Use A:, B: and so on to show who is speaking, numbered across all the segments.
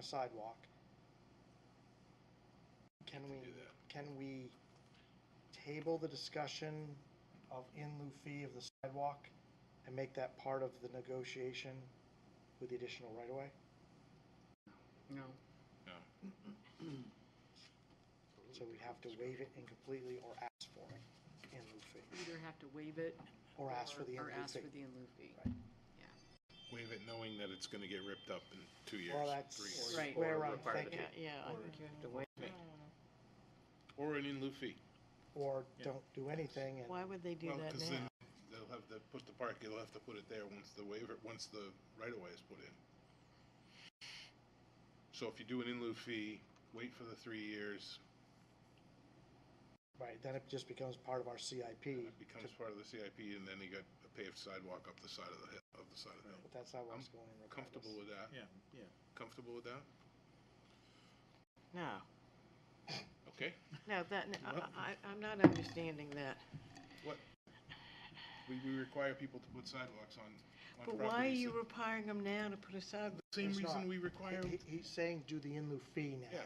A: a sidewalk. Can we,
B: do that.
A: can we table the discussion of in lieu fee of the sidewalk and make that part of the negotiation with the additional right-of-way?
C: No.
A: So we'd have to waive it incompletely or ask for it in lieu fee,
C: Either have to waive it.
A: or ask for the in
C: Or
A: lieu
C: ask
A: fee.
C: for the in lieu fee.
B: Waive it knowing that it's gonna get ripped up in two years.
A: Well,
B: three
A: that's
B: years.
C: Right.
A: where
D: Or
A: I'm
D: require the
A: thinking,
E: Yeah, I think you have to wait.
B: Or an in lieu fee.
A: or don't do anything and,
E: Why would they do
B: Well,
E: that
B: 'cause
E: now?
B: then They'll have to put the park, you'll have to put it there once the waiver, once the right of way is put in. So if you do an in lieu fee, wait for the three years,
A: right, then it just becomes part of our CIP.
B: it
A: to-
B: becomes part of the CIP, and then you got a paved sidewalk up the side of the hill, of the side of the hill.
A: But that's not where it's going regardless.
B: Comfortable with that?
D: Yeah, yeah.
B: Comfortable with that?
E: No,
B: Okay.
E: no, that, no, I-
B: Well-
E: I, I'm not understanding that.
B: We, we require people to put sidewalks on, on
E: But
B: properties.
E: why are you
B: that-
E: requiring them now to put a sidewalk?
B: Same
A: It's not.
B: reason we require,
A: He- He's saying do the in lieu fee now,
B: Yeah.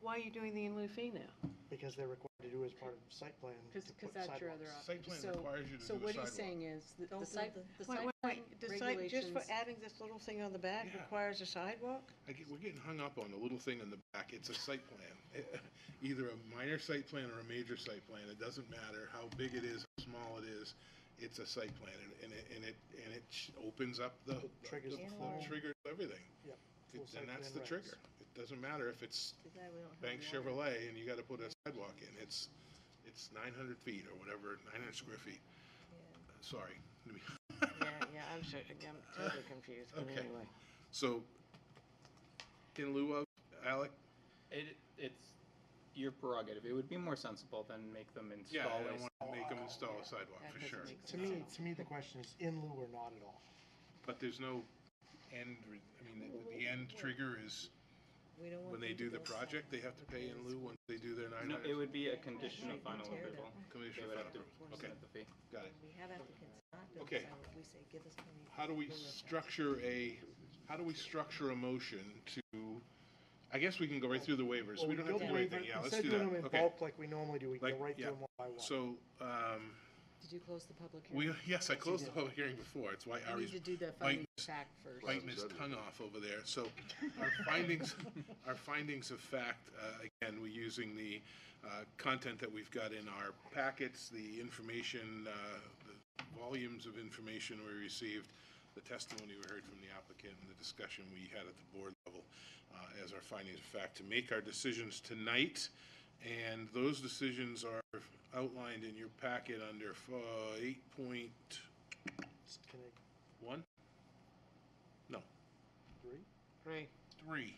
E: Why are you doing the in lieu fee E now?
A: because they're required to do as part of site plan. to
C: 'Cause- 'cause
A: put
C: that's your other
A: sidewalks.
B: site plan
C: So-
B: requires you to do a
C: So
B: sidewalk.
C: what he's saying is, the-
D: Don't
C: the
D: do
C: site,
D: the-
C: the
E: Wait,
C: site
E: wait,
C: plan
E: wait, the site, just
C: regulations.
E: for adding this little thing on the back
B: Yeah.
E: requires a sidewalk?
B: I get, we're getting hung up on the little thing in the back. It's a site plan. Either a minor site plan or a major site plan. It doesn't matter how big it is, how small it is. It's a site plan and- and it, and it, and it sh- opens up the.
A: It triggers
B: the-
A: the
B: the
A: full-
B: Triggers everything.
A: Yep, full
B: It-
A: site
B: And that's
A: plan
B: the
A: regs.
B: trigger. It doesn't matter if it's Bank Chevrolet and you gotta put a sidewalk in. It's, it's nine hundred feet or whatever, nine hundred square feet. Sorry. Let me-
E: Yeah, yeah, I'm so, I'm totally confused, but
B: Okay.
E: anyway.
B: So, in lieu of, Alec,
F: It, it's your prerogative. It would be more sensible than make them
B: yeah,
F: install
B: I
F: a
B: don't wanna make them install a sidewalk
C: That
B: for
C: doesn't
B: sure.
C: make
A: To me, to me, the question is in lieu or not at all.
B: But there's no end, re- I mean, the- the end trigger is,
D: We don't want
B: when they
D: them to
B: do the
D: go
B: project, they
D: south.
B: have to pay in lieu once they do their nine
F: No, it
B: hundred.
F: would be a condition of final approval. They
B: Commission
F: would
B: final
F: have to
B: approval. Okay,
F: submit the fee.
B: got it.
D: We have applicants not do
B: Okay.
D: it, so we say, give us plenty. of
B: How do we
D: room if
B: structure a, how do we structure a motion to, I guess we can go right through the waivers. We don't have to do anything. Yeah, let's
A: Instead
B: do
A: of doing them
B: that.
A: in
B: Okay.
A: bulk like we normally do, we go
B: Like,
A: right through
B: yeah.
A: them one by one.
B: So, um,
D: that- Did you close the public hearing?
B: we, yes, I closed the public hearing before. It's why
C: We need
B: Ari's
C: to do the
B: biting
C: finding of fact first.
B: biting his tongue off over there. So our findings, our findings of fact, uh, again, we're using the uh, content that we've got in our packets, the information, uh, the volumes of information we received, the testimony we heard from the applicant, and the discussion we had at the board level uh, as our findings of fact to make our decisions tonight. And those decisions are outlined in your packet under uh, eight point
A: Just Can I,
B: one? No,
A: agree?
E: Right.
B: three,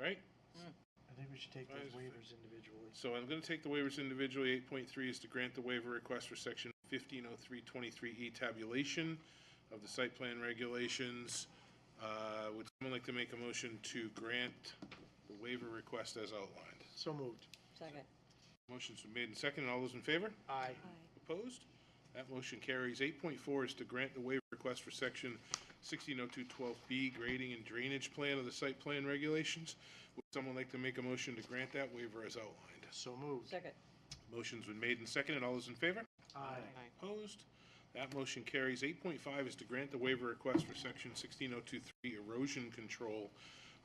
B: right?
A: I think we should take
B: Why
A: those
B: is it-
A: waivers individually.
B: So I'm gonna take the waivers individually. Eight point three is to grant the waiver request for section fifteen oh three twenty-three E tabulation of the site plan regulations. Uh, would someone like to make a motion to grant the waiver request as outlined?
A: So moved.
D: Second.
B: Motion's been made and seconded. All those in favor?
A: Aye.
B: Opposed? That motion carries. Eight point four is to grant the waiver request for section sixteen oh two twelve B grading and drainage plan of the site plan regulations. Would someone like to make a motion to grant that waiver as outlined?
A: So moved.
D: Second.
B: Motion's been made and seconded. All those in favor?
A: Aye.
B: Opposed? That motion carries. Eight point five is to grant the waiver request for section sixteen oh two three erosion control.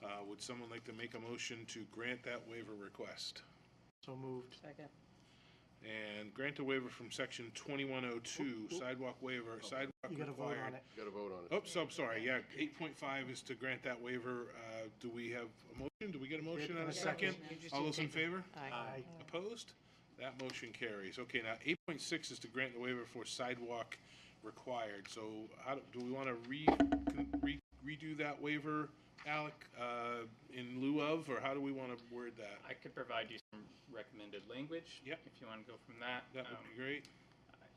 B: Uh, would someone like to make a motion to grant that waiver request?
A: So moved.
D: Second.
B: And grant a waiver from section twenty-one oh two sidewalk waiver, sidewalk
A: You gotta vote on
B: required.
A: it.
B: Oops, I'm sorry, yeah, eight point five is to grant that waiver. Uh, do we have a motion? Do we get a motion and a second?
E: You just
B: All
E: didn't
B: those in
E: take the-
B: favor?
E: Aye.
A: Aye.
B: Opposed? That motion carries. Okay, now eight point six is to grant the waiver for sidewalk required. So how, do do we want to re, re- redo that waiver, Alec, uh, in lieu of, or how do we want to word that?
F: I could provide you some recommended language.
B: Yep.
F: If you want to go from that.
B: That
F: Um,
B: would be great.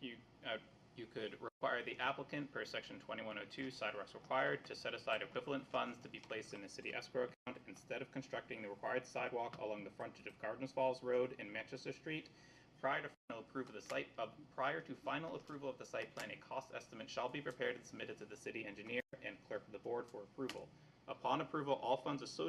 F: You, uh, you could require the applicant per section twenty-one oh two sidewalks required to set aside equivalent funds to be placed in the city escrow account instead of constructing the required sidewalk along the frontage of Gardens Falls Road and Manchester Street. Prior to final approval of the site, uh, prior to final approval of the site plan, a cost estimate shall be prepared and submitted to the city engineer and clerk of the board for approval. Upon approval, all funds associated